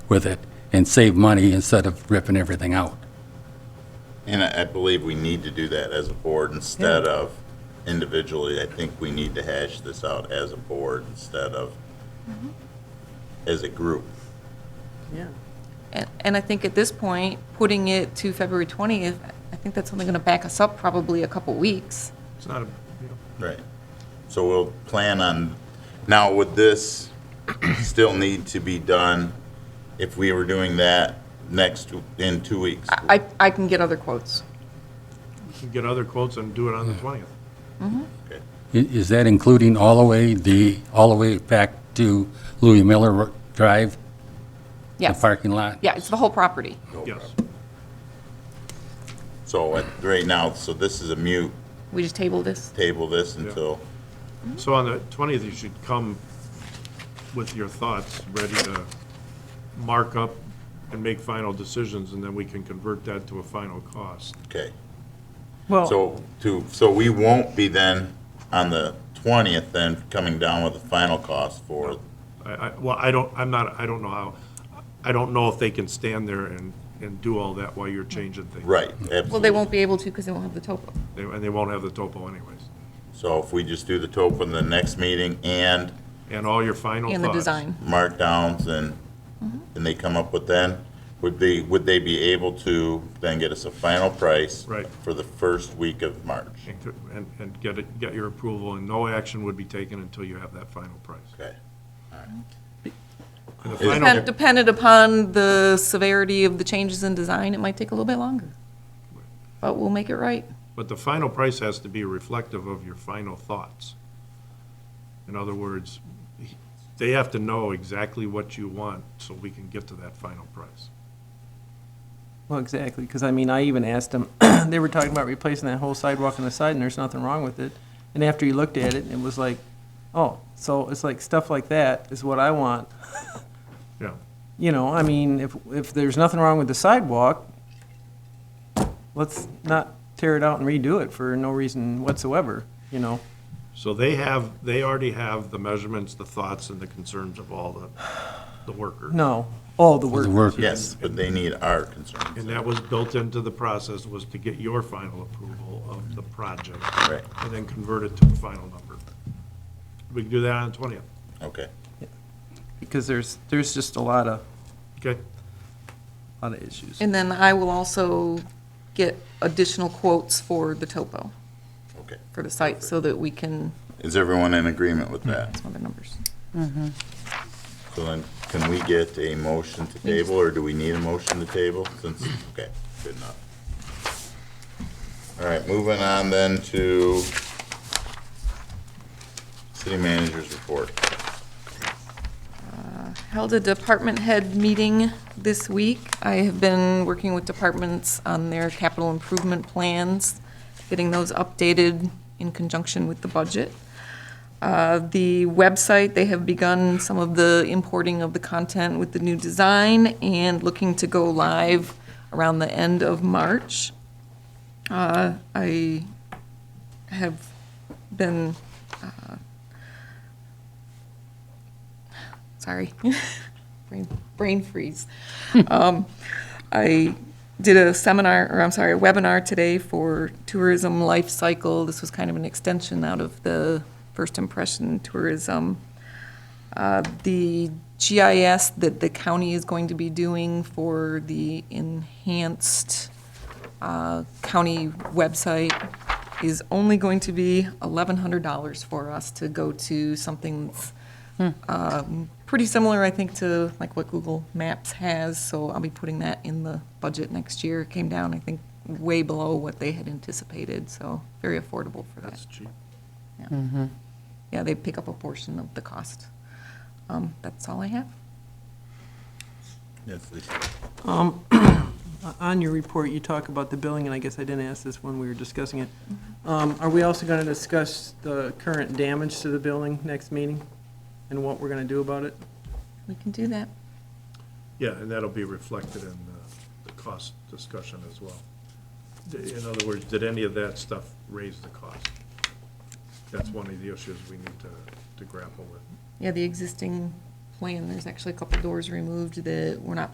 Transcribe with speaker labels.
Speaker 1: with it and save money instead of ripping everything out.
Speaker 2: And I I believe we need to do that as a board instead of individually. I think we need to hash this out as a board instead of as a group.
Speaker 3: And, and I think at this point, putting it to February 20th, I think that's only going to back us up probably a couple weeks.
Speaker 4: It's not a, you know,
Speaker 2: Right. So we'll plan on, now would this still need to be done if we were doing that next, in two weeks?
Speaker 3: I, I can get other quotes.
Speaker 4: you can get other quotes and do it on the 20th.
Speaker 2: Okay.
Speaker 1: I- Is that including all the way, the, all the way back to Louis Miller Ro- Drive? The
Speaker 3: Yes.
Speaker 1: parking lot?
Speaker 3: Yeah, it's the whole property.
Speaker 2: No
Speaker 4: Yes.
Speaker 2: problem. So at- right now, so this is a mute,
Speaker 3: We just table this.
Speaker 2: table this until,
Speaker 4: So on the 20th, you should come with your thoughts, ready to mark up and make final decisions, and then we can convert that to a final cost.
Speaker 2: okay.
Speaker 3: Oh.
Speaker 5: Well,
Speaker 2: So to, so we won't be then on the 20th then coming down with the final cost for,
Speaker 4: I, I, well, I don't, I'm not, I don't know how, I don't know if they can stand there and, and do all that while you're changing things.
Speaker 2: right,
Speaker 3: Well, they
Speaker 2: absolutely.
Speaker 3: won't be able to because they won't have the topo.
Speaker 4: They- And they won't have the topo anyways.
Speaker 2: So if we just do the topo in the next meeting and
Speaker 4: And all your final thoughts.
Speaker 3: And the design.
Speaker 2: markdowns and,
Speaker 3: Mm-hmm.
Speaker 2: and they come up with then, would they, would they be able to then get us a final price?
Speaker 4: Right.
Speaker 2: For the first week of March?
Speaker 4: And, to- and- and get it, get your approval, and no action would be taken until you have that final price.
Speaker 2: Okay.
Speaker 4: And the
Speaker 2: Is-
Speaker 4: final-
Speaker 3: Depend- Dependent upon the severity of the changes in design, it might take a little bit longer. But we'll make it right.
Speaker 4: But the final price has to be reflective of your final thoughts. In other words, they have to know exactly what you want so we can get to that final price.
Speaker 5: well, exactly, because I mean, I even asked them, they were talking about replacing that whole sidewalk on the side, and there's nothing wrong with it. And after you looked at it, it was like, oh, so it's like stuff like that is what I want.
Speaker 4: Yeah,
Speaker 5: You know, I mean, if, if there's nothing wrong with the sidewalk, let's not tear it out and redo it for no reason whatsoever, you know?
Speaker 4: so they have, they already have the measurements, the thoughts, and the concerns of all the, the workers.
Speaker 5: No, all the
Speaker 1: The
Speaker 5: work,
Speaker 1: work,
Speaker 2: Yes, but they need our concerns.
Speaker 4: And that was built into the process, was to get your final approval of the project.
Speaker 2: Right.
Speaker 4: And then convert it to a final number. We can do that on the twentieth,
Speaker 2: Okay.
Speaker 5: because there's, there's just a lot of,
Speaker 4: okay?
Speaker 5: lot of issues.
Speaker 3: And then I will also get additional quotes for the topo,
Speaker 2: Okay.
Speaker 3: for the site, so that we can,
Speaker 2: Is everyone in agreement with that?
Speaker 3: some other numbers.
Speaker 2: So then, can we get a motion to table, or do we need a motion to table? Since, okay, good enough. All right, moving on then to city manager's report.
Speaker 3: held a department head meeting this week. I have been working with departments on their capital improvement plans, getting those updated in conjunction with the budget. Uh, The website, they have begun some of the importing of the content with the new design and looking to go live around the end of March. Uh, I have been sorry, brain, brain freeze. um, I did a seminar, or I'm sorry, a webinar today for tourism life cycle. This was kind of an extension out of the first impression tourism. Uh, the GIS that the county is going to be doing for the enhanced uh, county website is only going to be $1,100 for us to go to something that's um, pretty similar, I think, to like what Google Maps has, so I'll be putting that in the budget next year. It came down, I think, way below what they had anticipated, so very affordable for that.
Speaker 4: cheap.
Speaker 3: Yeah, they pick up a portion of the cost. Um, That's all I have.
Speaker 2: Yes, please.
Speaker 5: Uh, On your report, you talk about the billing, and I guess I didn't ask this when we were discussing it. Um, Are we also going to discuss the current damage to the building next meeting and what we're going to do about it?
Speaker 3: We can do that.
Speaker 4: Yeah, and that'll be reflected in the, the cost discussion as well. D- In other words, did any of that stuff raise the cost? That's one of the issues we need to, to grapple with.
Speaker 3: Yeah, the existing plan, there's actually a couple doors removed that we're not